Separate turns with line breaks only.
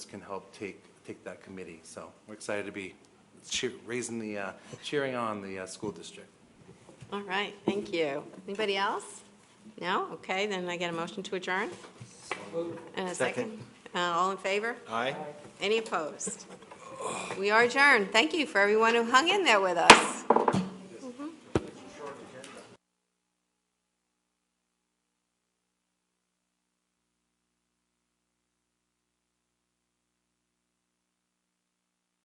can help take, take that committee. So we're excited to be cheer, raising the, uh, cheering on the, uh, school district.
All right, thank you. Anybody else? No? Okay, then I get a motion to adjourn? And a second? Uh, All in favor?
Aye.
Any opposed? We are adjourned. Thank you for everyone who hung in there with us.